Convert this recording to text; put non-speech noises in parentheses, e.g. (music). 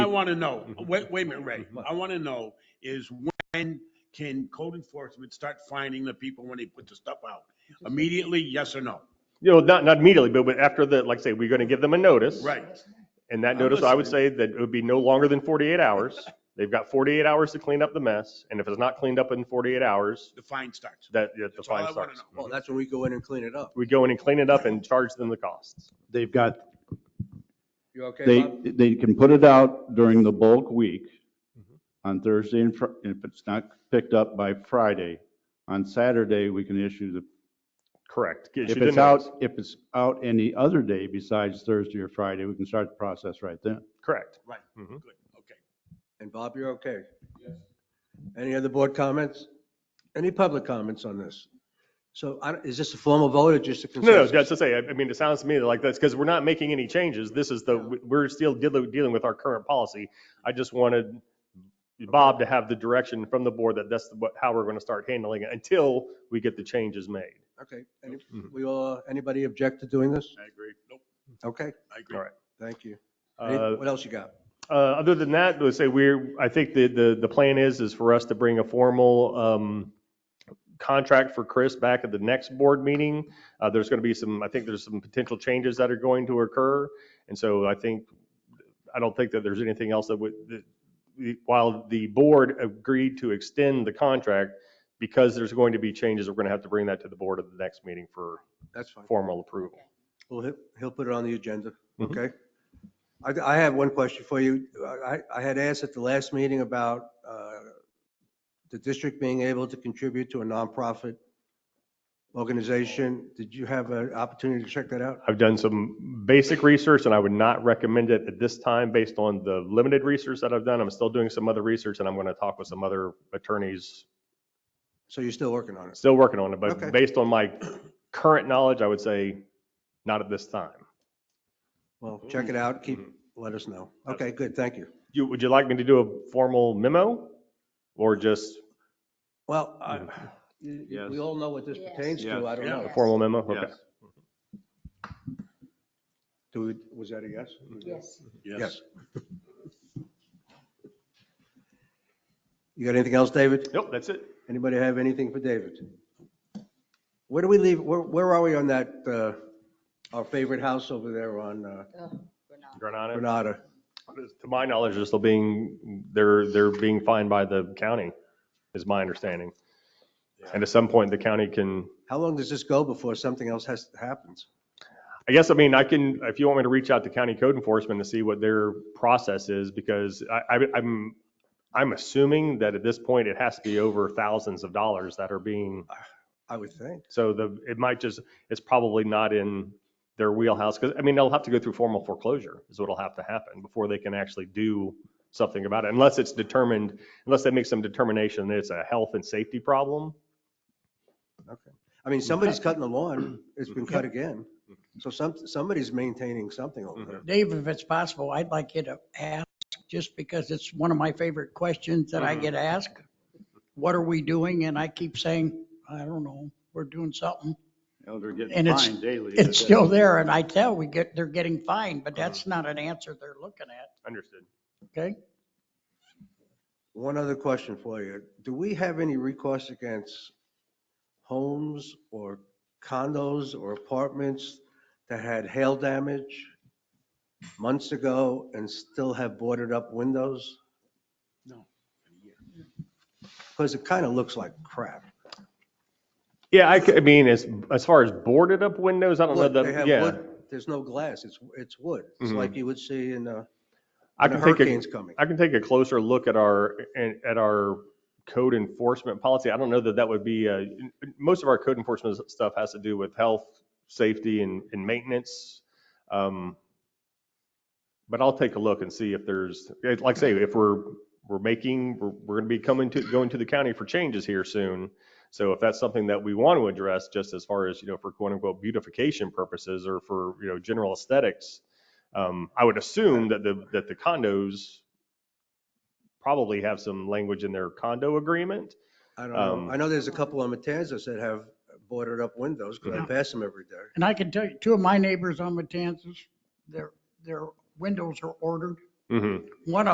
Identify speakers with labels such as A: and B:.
A: want to know, wait, wait a minute, Ray. I want to know is when can code enforcement start finding the people when they put the stuff out? Immediately, yes or no?
B: You know, not, not immediately, but but after the, like I say, we're going to give them a notice.
A: Right.
B: And that
A: I'm
B: notice, I would say that it would be no longer than 48 hours.
A: (laughs)
B: They've got 48 hours to clean up the mess. And if it's not cleaned up in 48 hours,
A: The fine starts.
B: that, that the
A: That's all I
B: fine
A: want to
B: starts.
A: know.
C: Well, Oh, that's when we go in and clean it up.
B: We go in and clean it up and charge them the costs.
D: They've got,
C: You okay,
D: they,
C: Bob?
D: they can put it out during the bulk week
C: Mm-hmm.
D: on Thursday and Fri- if it's not picked up by Friday. On Saturday, we can issue the,
B: Correct.
D: if it's out, if it's out any other day besides Thursday or Friday, we can start the process right then.
B: Correct.
A: Right. Good.
B: Mhm.
A: Okay.
C: And Bob, you're okay? Any other board comments? Any public comments on this? So I don't- is this a formal vote or just a
B: No, no,
C: consensus?
B: just to say, I I mean, it sounds to me like that's because we're not making any changes. This is the, we're still deal- dealing with our current policy. I just wanted Bob to have the direction from the board that that's what, how we're going to start handling it until we get the changes made.
C: Okay. Any-
B: Mhm.
C: We all, anybody object to doing this?
A: I agree. Nope,
C: Okay,
A: I agree.
B: All right.
C: thank you. Any-
B: Uh,
C: What else you got?
B: Uh, Other than that, let's say we're, I think the, the, the plan is, is for us to bring a formal um, contract for Chris back at the next board meeting. Uh, There's going to be some, I think there's some potential changes that are going to occur. And so I think, I don't think that there's anything else that would, that the- while the board agreed to extend the contract, because there's going to be changes, we're going to have to bring that to the board at the next meeting for
C: That's fine.
B: formal approval.
C: Well, he'll, he'll put it on the agenda,
B: Mhm.
C: okay? I, I have one question for you. I, I had asked at the last meeting about uh, the district being able to contribute to a nonprofit organization. Did you have an opportunity to check that out?
B: I've done some basic research and I would not recommend it at this time based on the limited research that I've done. I'm still doing some other research and I'm going to talk with some other attorneys.
C: So you're still working on it?
B: Still working on it,
C: Okay.
B: but based on my current knowledge, I would say not at this time.
C: Well, check it out, keep, let us know. Okay, good, thank you.
B: You, would you like me to do a formal memo? Or just
C: Well, I- (sighs) you- you- we
D: Yes.
C: all know what this
E: Yes.
C: pertains to, I don't
A: Yeah.
C: know.
B: a formal memo? Okay.
D: Yes.
C: Do we- Was that a yes?
E: Yes.
A: Yes.
C: (laughs) You got anything else, David?
B: Nope, that's it.
C: Anybody have anything for David? Where do we leave, where, where are we on that, uh, our favorite house over there on uh,
E: Oh, we're not.
B: Granada,
C: Granada?
B: to my knowledge, they're still being, they're, they're being fined by the county is my understanding. And at some point, the county can
C: How long does this go before something else has, happens?
B: I guess, I mean, I can, if you want me to reach out to county code enforcement to see what their process is, because I, I- I'm, I'm assuming that at this point, it has to be over thousands of dollars that are being,
C: I would think.
B: so the, it might just, it's probably not in their wheelhouse, because, I mean, they'll have to go through formal foreclosure is what'll have to happen before they can actually do something about it, unless it's determined, unless they make some determination that it's a health and safety problem.
C: I mean, somebody's cutting the lawn, it's been cut again. So some, somebody's maintaining something over there.
F: Dave, if it's possible, I'd like you to ask, just because it's one of my favorite questions that I get asked. What are we doing? And I keep saying, I don't know, we're doing something.
D: They're
F: And it's-
D: fined daily.
F: It's still there and I tell we get, they're getting fined, but that's not an answer they're looking at,
B: Understood.
F: okay?
C: One other question for you. Do we have any recourse against homes or condos or apartments that had hail damage months ago and still have boarded up windows?
A: No.
C: Because it kind of looks like crap.
B: Yeah, I, c- I mean, as, as far as boarded up windows, I don't know
C: Wood, they
B: that,
C: have
B: yeah.
C: wood. There's no glass. It's, it's wood. It's
B: Mhm.
C: like you would see in uh,
B: I
C: when
B: can take a,
C: a hurricane's coming.
B: I can take a closer look at our, at our code enforcement policy. I don't know that that would be, uh, most of our code enforcement stuff has to do with health, safety and, and maintenance. Um, But I'll take a look and see if there's, eh, like I say, if we're, we're making, we're, we're going to be coming to, going to the county for changes here soon. So if that's something that we want to address, just as far as, you know, for quote unquote beautification purposes or for, you know, general aesthetics, um, I would assume that the, that the condos probably have some language in their condo agreement.
C: I don't know.
B: um,
C: I know there's a couple on Matanzas that have boarded up windows because I
B: Mhm.
C: pass them every day.
F: And I can tell you, two of my neighbors on Matanzas, their, their windows are ordered.
B: Mm-hmm.
F: One of